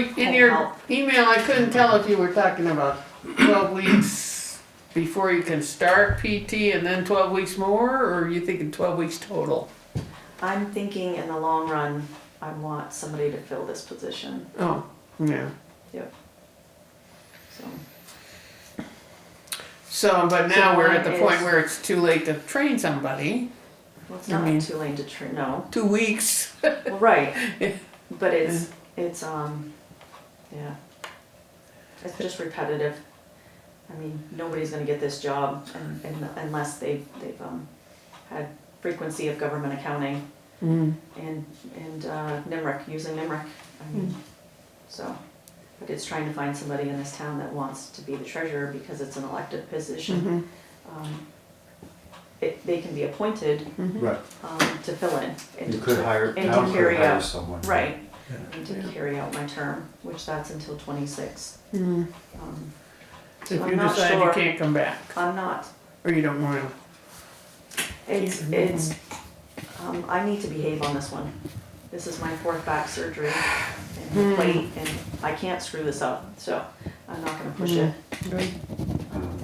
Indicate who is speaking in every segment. Speaker 1: In your email, I couldn't tell if you were talking about twelve weeks before you can start PT and then twelve weeks more, or are you thinking twelve weeks total?
Speaker 2: I'm thinking in the long run, I want somebody to fill this position,
Speaker 1: Oh, yeah.
Speaker 2: so.
Speaker 1: So, but now we're at the
Speaker 2: So mine
Speaker 1: point
Speaker 2: is-
Speaker 1: where it's too late to train somebody.
Speaker 2: Well, it's
Speaker 1: I mean-
Speaker 2: not too late to train, no,
Speaker 1: Two weeks.
Speaker 2: well, right, but it's, it's, um, yeah. It's just repetitive. I mean, nobody's gonna get this job un- un- unless they've, they've, um, had frequency of government accounting
Speaker 1: Mm.
Speaker 2: and, and, uh, NIMRIC, using NIMRIC, I mean, so. But it's trying to find somebody in this town that wants to be the treasurer because it's an elected position.
Speaker 1: Mhm.
Speaker 2: um, it, they can be appointed
Speaker 3: Right,
Speaker 2: um, to fill in. and
Speaker 3: you could
Speaker 2: to-
Speaker 3: hire,
Speaker 2: and to
Speaker 3: town could
Speaker 2: carry
Speaker 3: hire
Speaker 2: out-
Speaker 3: someone.
Speaker 2: Right,
Speaker 3: Yeah.
Speaker 2: and to carry out my term, which that's until twenty-six.
Speaker 3: Mm-hmm.
Speaker 1: Mm.
Speaker 2: Um,
Speaker 1: If
Speaker 2: I'm
Speaker 1: you
Speaker 2: not
Speaker 1: decide you
Speaker 2: sure.
Speaker 1: can't come back,
Speaker 2: I'm not,
Speaker 1: or you don't wanna,
Speaker 2: it's,
Speaker 1: Can't remember.
Speaker 2: it's, um, I need to behave on this one. This is my fourth back surgery and
Speaker 1: Hmm.
Speaker 2: plate, and I can't screw this up, so I'm not gonna
Speaker 3: Hmm.
Speaker 2: push it.
Speaker 3: Um,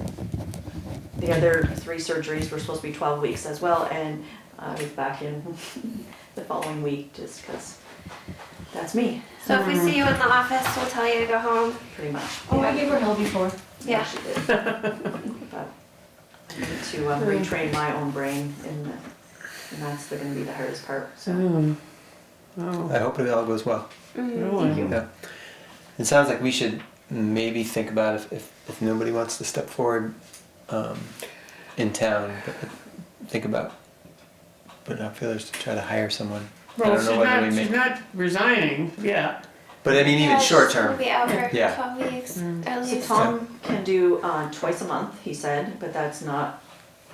Speaker 2: The other three surgeries were supposed to be twelve weeks as well, and I was back in the following week just because that's me,
Speaker 4: So if we see you in the office, we'll tell you to go home.
Speaker 2: pretty much.
Speaker 5: Oh, I gave her hell before.
Speaker 4: Yeah.
Speaker 2: She did. But I need to um, retrain my own brain and, the- and that's the- gonna be the hardest part, so.
Speaker 1: oh, oh,
Speaker 6: I hope it all goes well.
Speaker 1: really?
Speaker 6: Yeah. It sounds like we should maybe think about if, if, if nobody wants to step forward um, in town, but think about putting out feelers to try to hire someone. I
Speaker 1: Well,
Speaker 6: don't
Speaker 1: she's
Speaker 6: know whether we
Speaker 1: not, she's
Speaker 6: make.
Speaker 1: not resigning yet.
Speaker 6: But I mean, even short term.
Speaker 4: We'll be out for
Speaker 6: Yeah.
Speaker 4: 12 weeks at
Speaker 2: So
Speaker 4: least.
Speaker 2: Tom can do uh, twice a month, he said, but that's not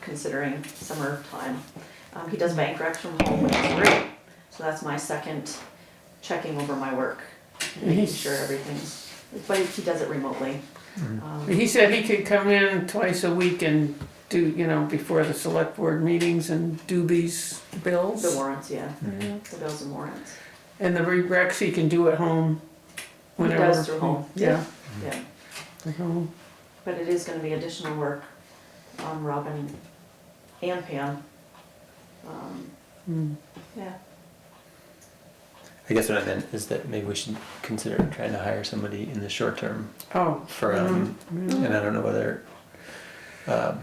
Speaker 2: considering summertime. Um, He does bank recs from home, which is great, so that's my second checking over my work, making
Speaker 1: He's-
Speaker 2: sure everything's, but he does it remotely. Um,
Speaker 1: He said he could come in twice a week and do, you know, before the select board meetings and do these
Speaker 2: The
Speaker 1: bills.
Speaker 2: warrants, yeah, the bills and warrants,
Speaker 1: And the recs he can do at home
Speaker 2: He
Speaker 1: whenever.
Speaker 2: does through home.
Speaker 1: Yeah,
Speaker 2: yeah.
Speaker 1: at home.
Speaker 2: But it is gonna be additional work on Robin and Pam. Um,
Speaker 1: Mm.
Speaker 2: Yeah,
Speaker 6: I guess what I meant is that maybe we should consider trying to hire somebody in the short term
Speaker 1: Oh,
Speaker 6: for, um, and I don't know whether um,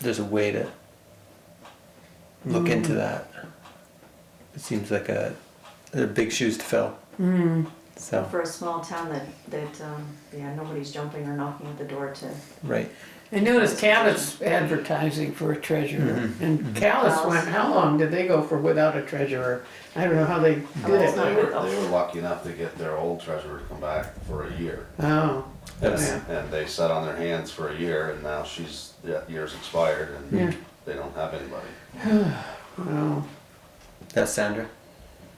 Speaker 6: there's a way to look into that. It seems like a, they're big shoes to fill.
Speaker 1: mm,
Speaker 6: So,
Speaker 2: for a small town that, that, um, yeah, nobody's jumping or knocking at the door to,
Speaker 6: right.
Speaker 1: I noticed Callis advertising for a treasurer and Callis went, how long did they go for without a treasurer? I don't know how they did
Speaker 2: That's
Speaker 7: Well,
Speaker 1: it.
Speaker 2: not
Speaker 7: they
Speaker 2: good
Speaker 7: were,
Speaker 2: though.
Speaker 7: they were lucky enough to get their old treasurer to come back for a year.
Speaker 1: Oh,
Speaker 6: That's,
Speaker 1: Yeah.
Speaker 7: And they sat on their hands for a year and now she's, that year's expired
Speaker 1: Yeah.
Speaker 7: and they don't have anybody.
Speaker 1: oh,
Speaker 6: that's Sandra.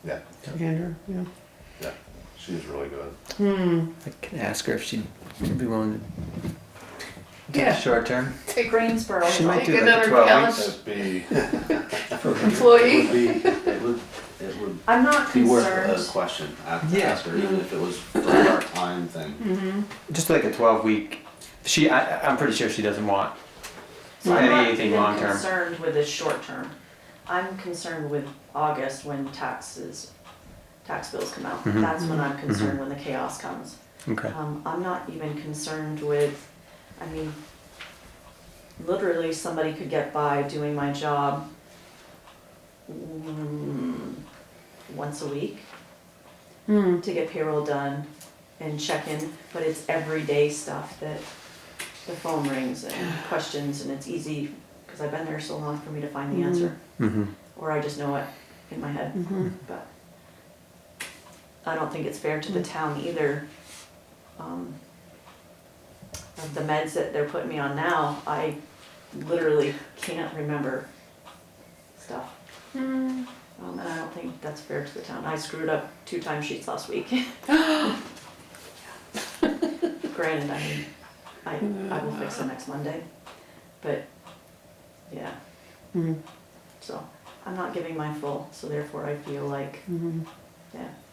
Speaker 7: Yeah,
Speaker 1: Andrew, yeah.
Speaker 7: yeah, she's really good.
Speaker 1: Hmm,
Speaker 6: I can ask her if she'd be willing to do
Speaker 1: Yeah.
Speaker 6: the short term.
Speaker 1: take,
Speaker 2: Greensboro,
Speaker 6: She might
Speaker 1: take
Speaker 6: do like a
Speaker 1: another
Speaker 6: 12
Speaker 1: Callis
Speaker 7: It'd be,
Speaker 1: employee.
Speaker 7: would be, it would, it would
Speaker 2: I'm not
Speaker 7: be worth a
Speaker 2: concerned,
Speaker 7: question at the
Speaker 6: Yeah.
Speaker 7: ask her, even if it was for a part-time thing.
Speaker 6: Just like a 12 week. She, I, I'm pretty sure she doesn't want
Speaker 2: so I'm not
Speaker 6: anything
Speaker 2: even
Speaker 6: long term.
Speaker 2: concerned with the short term. I'm concerned with August when taxes, tax bills come out.
Speaker 6: Mhm.
Speaker 2: That's when I'm concerned, when the chaos comes.
Speaker 6: Okay.
Speaker 2: Um, I'm not even concerned with, I mean, literally somebody could get by doing my job mm, once a week
Speaker 1: Hmm,
Speaker 2: to get payroll done and check in, but it's everyday stuff that the phone rings and questions and it's easy, cause I've been there so long for me to find the answer,
Speaker 6: Mm-hmm.
Speaker 2: or I just know it in my head
Speaker 1: mhm.
Speaker 2: but I don't think it's fair to the town either. Um, Of the meds that they're putting me on now, I literally can't remember stuff. Um, and I don't think that's fair to the town. I screwed up two timesheets last week. Granted, I mean, I, I will fix them next Monday, but, yeah.
Speaker 1: Hmm.
Speaker 2: So, I'm not giving my full, so therefore I feel like,
Speaker 1: Mhm.
Speaker 2: yeah,